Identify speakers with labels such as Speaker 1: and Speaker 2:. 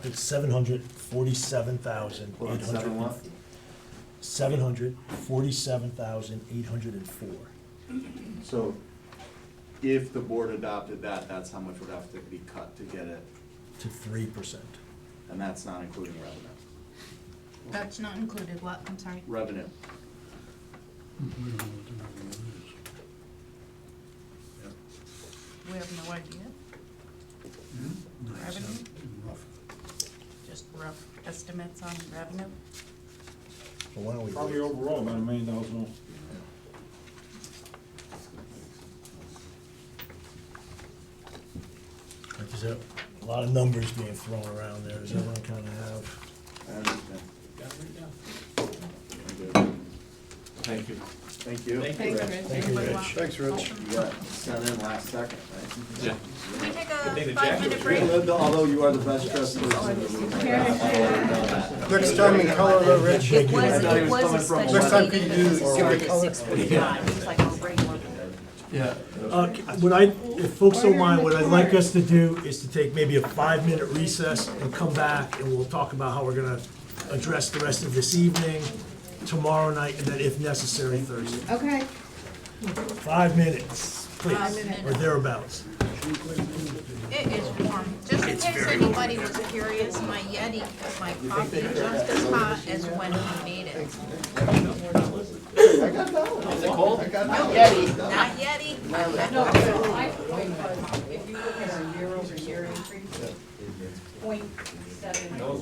Speaker 1: It's seven hundred forty-seven thousand
Speaker 2: Well,
Speaker 1: eight
Speaker 2: it's seven
Speaker 1: hundred.
Speaker 2: what?
Speaker 1: Seven hundred forty-seven thousand eight hundred and four.
Speaker 2: So if the board adopted that, that's how much would have to be cut to get it,
Speaker 1: to three percent.
Speaker 2: and that's not including revenue.
Speaker 3: That's not included, what, I'm sorry?
Speaker 2: Revenue,
Speaker 4: We don't know what the number is.
Speaker 3: We have no idea,
Speaker 4: No, it's
Speaker 3: Revenue?
Speaker 4: not rough.
Speaker 3: just rough estimates on revenue.
Speaker 1: So why don't we?
Speaker 5: Probably overall about a million dollars more.
Speaker 1: Like you said, a lot of numbers being thrown around there, does everyone kind of have?
Speaker 2: I understand. Thank you. Thank you. Rich.
Speaker 3: Thanks, Rich.
Speaker 1: Thank you,
Speaker 3: Anybody
Speaker 1: Rich.
Speaker 3: want-
Speaker 6: Thanks, Rich.
Speaker 2: You got sent in last second, right?
Speaker 7: Yeah.
Speaker 3: Can we take
Speaker 7: thing
Speaker 3: a
Speaker 7: that
Speaker 3: five
Speaker 7: Jack
Speaker 3: minute break?
Speaker 2: Although you are the best dressed person in the room. I already know that.
Speaker 6: Next time in color though, Rich.
Speaker 1: Thank
Speaker 8: It
Speaker 1: you.
Speaker 8: was,
Speaker 2: thought he
Speaker 8: it
Speaker 2: was
Speaker 8: was a
Speaker 2: coming from
Speaker 8: special.
Speaker 2: Next time,
Speaker 6: could you
Speaker 8: meeting
Speaker 6: do-
Speaker 8: that
Speaker 6: give
Speaker 8: was
Speaker 6: me
Speaker 8: started at
Speaker 6: color?
Speaker 8: 6:45. It was like a regular.
Speaker 6: Yeah.
Speaker 1: Uh, c- What I, if folks don't mind, what I'd like us to do is to take maybe a five-minute recess and come back, and we'll talk about how we're gonna address the rest of this evening, tomorrow night, and then if necessary, Thursday.
Speaker 3: Okay.
Speaker 1: Five minutes,
Speaker 3: Five
Speaker 1: please,
Speaker 3: minutes.
Speaker 1: or thereabouts.
Speaker 3: It is warm, just in case anybody was curious, my Yeti, my coffee just as hot as when we made it.
Speaker 2: I got that one.
Speaker 3: No, Not Yeti.